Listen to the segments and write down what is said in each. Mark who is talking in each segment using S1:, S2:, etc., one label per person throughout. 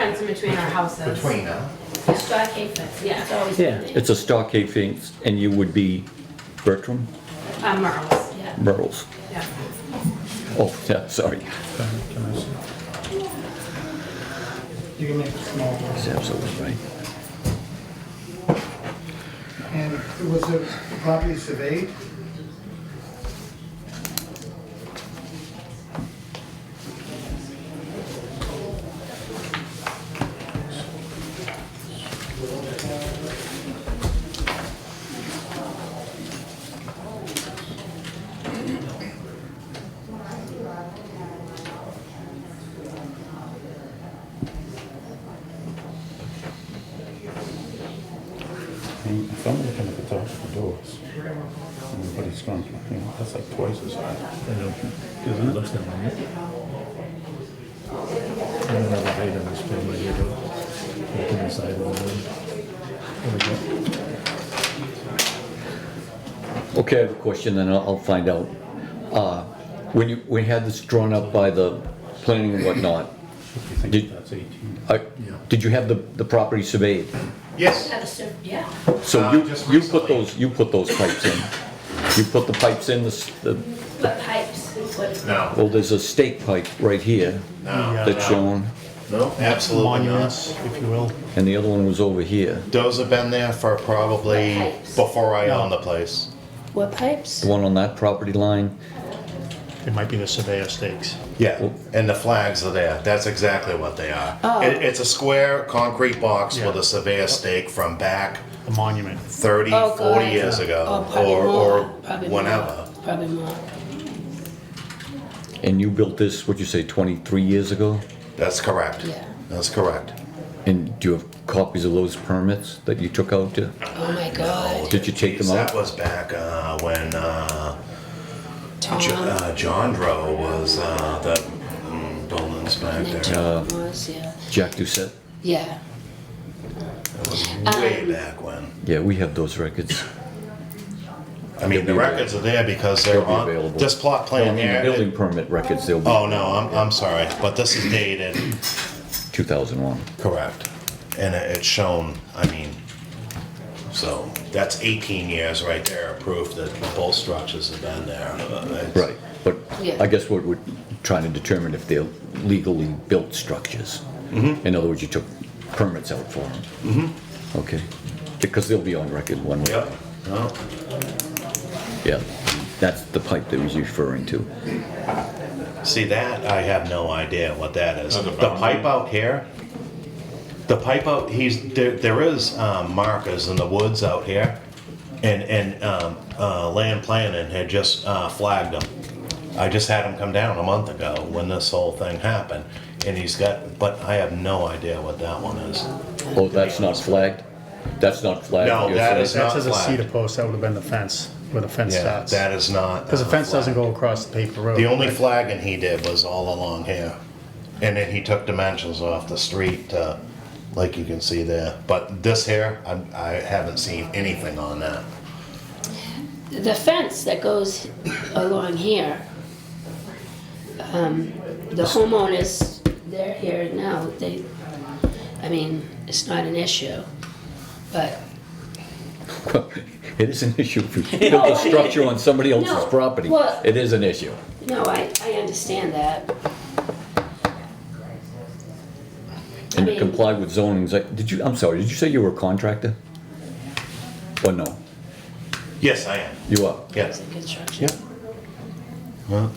S1: fence in between our houses.
S2: between them.
S3: Stockade fence, yeah, it's always.
S4: Yeah, it's a stockade fence, and you would be Bertram,
S1: Uh, Merle's,
S3: Yeah.
S4: Myrtles.
S1: yeah.
S4: Oh, yeah, sorry.
S5: You can make it small.
S4: It's absolutely right.
S5: And was the property surveyed?
S6: And If I'm looking at the top of the doors, everybody's going, you know, that's like twice as high.
S7: I know. It looks that way. I don't have a height on this plan, but you do. Open the side of the building. There we go.
S4: Okay, I have a question, then I'll, I'll find out. Uh, When you, we had this drawn up by the planning and whatnot,
S6: If you think
S4: Did-
S6: that's 18.
S4: uh, did you have the, the property surveyed?
S2: Yes,
S3: Have a cer- yeah.
S4: So
S2: Uh,
S4: you,
S2: just
S4: you put
S2: recently.
S4: those, you put those pipes in? You put the pipes in, the s- the,
S3: What pipes, what?
S2: no,
S4: well, there's a stake pipe right here
S2: no,
S4: that's shown,
S7: No?
S2: absolutely
S7: Monuments,
S2: not.
S7: if you will.
S4: and the other one was over here,
S2: Those have been there for probably before I owned the place.
S3: What pipes?
S4: the one on that property line.
S7: It might be the surveyor stakes.
S2: Yeah, and the flags are there. That's exactly what they are.
S3: Oh.
S2: It, it's a square concrete box with
S7: Yeah.
S2: a surveyor stake from back
S7: The monument.
S2: 30,
S3: Oh,
S2: 40
S3: God.
S2: years
S3: Oh,
S2: ago
S3: probably
S2: or,
S3: more,
S2: or
S3: probably more,
S2: whenever.
S3: Probably more.
S4: And you built this, what'd you say, 23 years ago?
S2: That's correct.
S3: Yeah.
S2: That's correct.
S4: And do you have copies of those permits that you took out to?
S3: Oh my God,
S4: Did you take them
S2: Jeez,
S4: out?
S2: That was back uh, when uh, Jo-
S3: Tom
S2: uh, Jondro was uh, the mm, building
S3: and
S2: inspector.
S3: Tom was, yeah,
S4: Jack Doucette?
S3: yeah.
S2: That was
S3: Um,
S2: way back when.
S4: Yeah, we have those records.
S2: I mean, the
S4: They'll be
S2: records are there because they're
S4: They'll be
S2: on
S4: available.
S2: this plot
S4: No, I
S2: plan
S4: mean, the
S2: here.
S4: building permit records, they'll be
S2: oh no, I'm, I'm sorry, but this is dated.
S4: 2001.
S2: Correct. And it- it's shown, I mean, so that's 18 years right there, proof that both structures have been there. Uh, it's-
S4: Right, but
S3: Yeah.
S4: I guess what we're trying to determine if they're legally built structures.
S3: Mm-hmm.
S4: In other words, you took permits out for them. Okay, because they'll be on record one way. or
S2: Yep.
S4: another.
S2: No.
S4: Yeah, that's the pipe that was referring to.
S2: See, that, I have no idea what that is. The pipe out here, the pipe out, he's, there, there is um, markers in the woods out here. And, and um, uh, land planning had just uh, flagged them. I just had him come down a month ago when this whole thing happened. And he's got, but I have no idea what that one is.
S4: Oh, that's not flagged? That's not flagged?
S2: No,
S4: you're
S2: that
S4: saying?
S2: is
S7: That
S2: not
S7: says a
S2: flag.
S7: cedar post, that would have been the fence, where the fence
S2: Yeah,
S7: starts.
S2: that is not.
S7: Because the
S2: uh,
S7: fence doesn't
S2: flag.
S7: go across the paper road.
S2: The
S8: Oh,
S2: only flagging he did was all along here. And then he took dimensions off the street, uh, like you can see there. But this here, I, I haven't seen anything on that.
S3: The fence that goes along here, um, the homeowners, they're here now, they, I mean, it's not an issue, but
S4: It is an issue if you build a structure on somebody else's
S3: No,
S4: property.
S3: well-
S4: It is an issue.
S3: No, I, I understand that.
S4: And
S3: I
S4: you
S3: mean-
S4: comply with zonings. Like, Did you, I'm sorry, did you say you were a contractor? Or no?
S2: Yes, I am.
S4: You are?
S2: Yes.
S3: It's a construction. But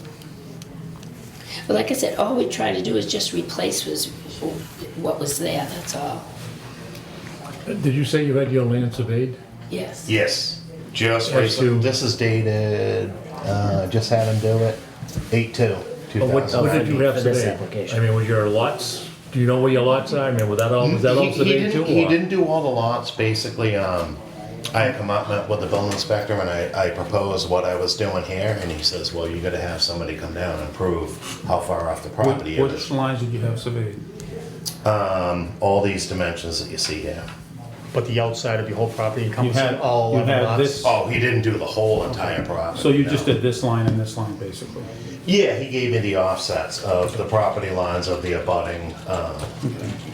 S3: like I said, all we try to do is just replace was what was there, that's all.
S8: Did you say you had your land surveyed?
S3: Yes.
S2: Yes. Just
S8: Yes,
S2: recently.
S8: you-
S2: This is dated, uh, just had him do it, eight two, two
S8: But what,
S2: thousand.
S8: what did you have
S9: For this
S8: surveyed?
S9: application.
S8: I mean, was your lots, do you know where your lots are? I mean, was that all, was that all surveyed too?
S2: He
S8: or-
S2: didn't do all the lots, basically, um, I had come up met with the building inspector and I, I proposed what I was doing here, and he says, well, you gotta have somebody come down and prove how far off the property it
S10: Which
S2: is.
S10: lines did you have surveyed?
S2: Um, all these dimensions that you see here.
S7: But the outside of your whole property
S10: You
S7: encompasses
S10: had,
S7: all
S10: you
S7: of the
S10: had
S7: lots.
S10: this,
S2: Oh, he didn't do the whole entire property.
S10: so you just
S2: no.
S10: did this line and this line, basically.
S2: Yeah, he gave me the offsets of the property lines of the abutting, uh,